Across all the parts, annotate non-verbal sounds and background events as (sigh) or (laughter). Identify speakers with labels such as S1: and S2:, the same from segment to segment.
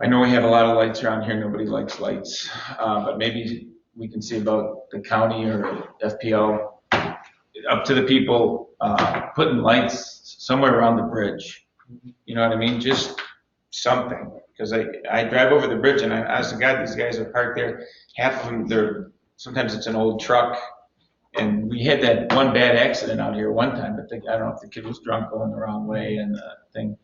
S1: I know we have a lot of lights around here, nobody likes lights, uh, but maybe we can see about the county or FPL, up to the people, uh, putting lights somewhere around the bridge. You know what I mean? Just something, because I, I drive over the bridge and I, honest to God, these guys are parked there, half of them, they're, sometimes it's an old truck. And we had that one bad accident out here one time, but the- I don't know if the kid was drunk going the wrong way and the thing.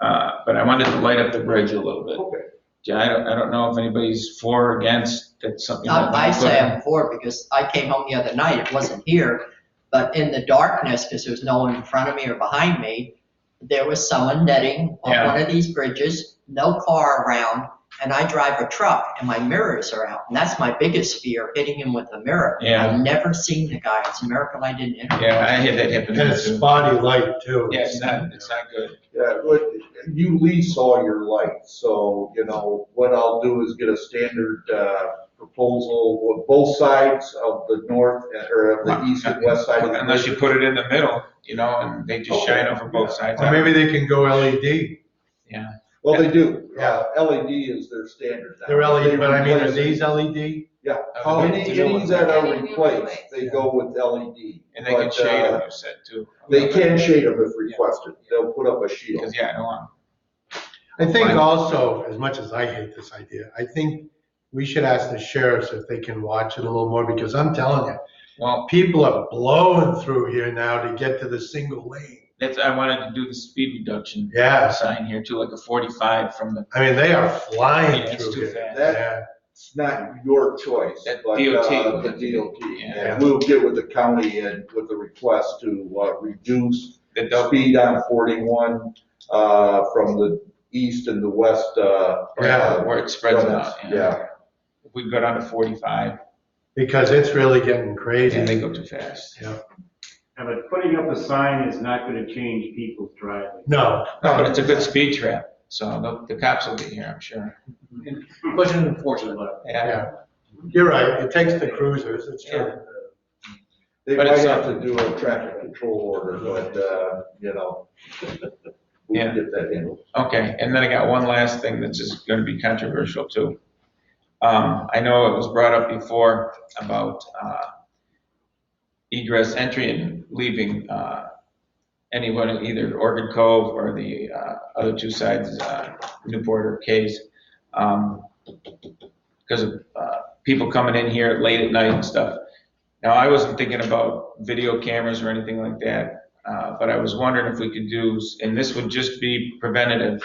S1: Uh, but I wanted to light up the bridge a little bit.
S2: Okay.
S1: Yeah, I don't, I don't know if anybody's for or against, that's something. that-
S2: I I say I'm for it because I came home the other night, it wasn't here, but in the darkness, because there was no one in front of me or behind me, there was someone netting on
S1: Yeah.
S2: one of these bridges, no car around, and I drive a truck and my mirrors are out. And that's my biggest fear, hitting him with a mirror.
S1: Yeah.
S2: I've never seen the guy, it's a miracle I didn't hit him.
S1: Yeah, I had that happen.
S3: And it's spotty light too.
S1: Yeah, it's not, it's not good.
S4: Yeah, but you lease all your lights, so, you know, what I'll do is get a standard, uh, proposal with both sides of the north, or of the east and west side. of the
S1: Unless you
S4: bridge.
S1: put it in the middle, you know, and they just shine over both sides.
S3: Or maybe they can go E LED.
S4: Well, they do, yeah, LED is their standard now.
S3: They're
S1: E
S3: LED, but I mean,
S4: They
S3: are
S4: replace
S3: these E LED?
S4: Yeah,
S1: Oh, the
S4: any,
S1: new
S4: any
S1: ones.
S4: that
S5: Any
S4: are
S5: new
S4: replaced,
S5: replaced.
S4: they go with LED.
S1: And they can
S4: But,
S1: shade
S4: uh,
S1: them, you said, too.
S4: They can shade them if requested, they'll put up a shield.
S1: Because, yeah, I don't want,
S3: I think also, as much as I hate this idea, I think we should ask the sheriffs if they can watch it a little more because I'm telling you,
S1: well,
S3: people are blowing through here now to get to the single lane.
S1: that's, I wanted to do the speed reduction
S3: Yes,
S1: sign here too, like a 45 from the,
S3: I mean, they are
S1: Yeah,
S3: flying
S1: it's
S3: through
S1: too
S3: here.
S1: fast.
S3: Yeah.
S4: It's not your choice,
S1: That
S4: but,
S1: DOT
S4: uh,
S1: would
S4: the
S1: have to do it.
S4: DOT.
S1: Yeah.
S4: And we'll get with the county and with the request to, uh, reduce
S1: the double.
S4: speed on 41 uh, from the east and the west. uh,
S1: Yeah,
S4: uh,
S1: where it spreads
S4: from-
S1: out.
S4: Yeah,
S1: If we go down to 45,
S3: Because it's really getting
S1: and they
S3: crazy.
S1: go too fast.
S6: Yeah, but putting up a sign is not gonna change people's driving.
S3: No,
S1: No, But it's a good speed trap, so the the cops will be here, I'm sure.
S7: Question unfortunate, but
S1: Yeah,
S3: yeah, you're right. It takes the cruisers, it's true.
S4: they
S1: But
S4: might
S1: it's
S4: have to
S1: something.
S4: do a traffic control order, but, uh, you know, (laughs) we
S1: Yeah.
S4: can get that handled.
S1: okay, and then I got one last thing that's just gonna be controversial too. Um, I know it was brought up before about, uh, egress, entry and leaving, uh, anyone in either Orchid Cove or the, uh, other two sides, uh, Newport or Case. Um, because of, uh, people coming in here late at night and stuff. Now, I wasn't thinking about video cameras or anything like that, uh, but I was wondering if we could do, and this would just be preventative.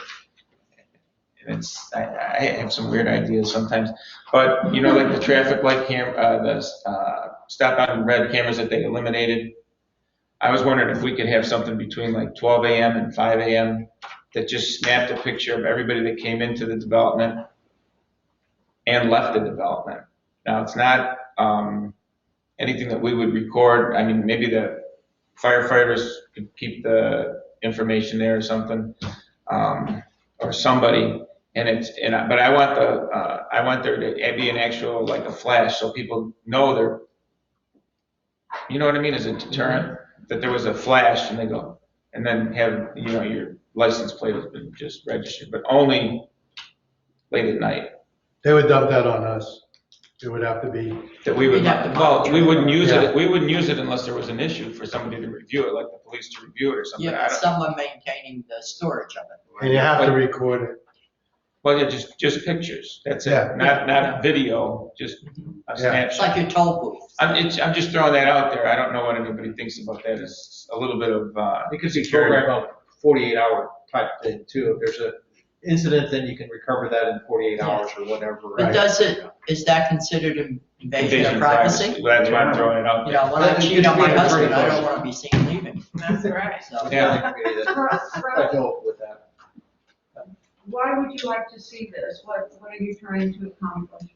S1: And it's, I, I have some weird ideas sometimes, but you know, like the traffic light cam, uh, the, uh, stop out and red cameras that they eliminated. I was wondering if we could have something between like twelve AM and five AM that just snapped a picture of everybody that came into the development and left the development. Now, it's not, um, anything that we would record, I mean, maybe the firefighters could keep the information there or something, um, or somebody, and it's, and, I- but I want the, uh, I want there to be an actual, like a flash, so people know they're, you know what I mean, as a deterrent, that there was a flash and they go, and then have, you know, your license plate has been just registered, but only late at night,
S3: They would dump that on us. It would have to be
S1: that we would,
S2: We'd have to
S1: well, we wouldn't use
S3: Yeah.
S1: it, we wouldn't use it unless there was an issue for somebody to review it, like the police to review it or something. I
S2: Yeah,
S1: don't-
S2: someone maintaining the storage of it.
S3: And you have to record it.
S1: Well, yeah, just, just pictures, that's it,
S3: Yeah.
S1: not, not video, just a
S3: Yeah.
S2: It's
S1: snapshot.
S2: like your toll booth.
S1: I'm, it's, I'm just throwing that out there, I don't know what anybody thinks about that, it's a little bit of, uh,
S7: it could be
S1: Security.
S7: programmed on a forty-eight hour type thing too. If there's a incident, then you can recover that in forty-eight hours or whatever,
S2: But
S7: right?
S2: does it, is that considered invasion
S1: invasion
S2: of
S1: of
S2: privacy?
S1: Well, That's why I'm throwing it out
S2: You
S1: there.
S2: know, when I
S7: That-
S2: cheat on my
S7: it's being
S2: husband, I don't
S7: pretty
S2: wanna be seen leaving,
S5: That's right.
S2: so.
S1: Yeah.
S7: I think we need to- I don't with that.
S5: Why would you like to see this? What, what are you trying to accomplish?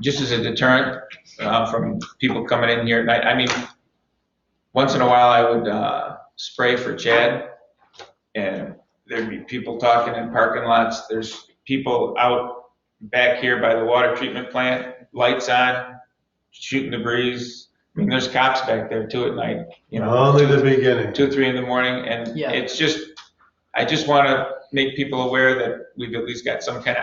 S1: just as a deterrent uh, from people coming in here at night. I mean, once in a while, I would uh, spray for Chad, and there'd be people talking in parking lots. There's people out back here by the water treatment plant, lights on, shooting the breeze. I mean, there's cops back there too at night, you know
S3: Only the beginning.
S1: two, three in the morning, and
S2: Yeah.
S1: it's just, I just want to make people aware that we've at least got some kind of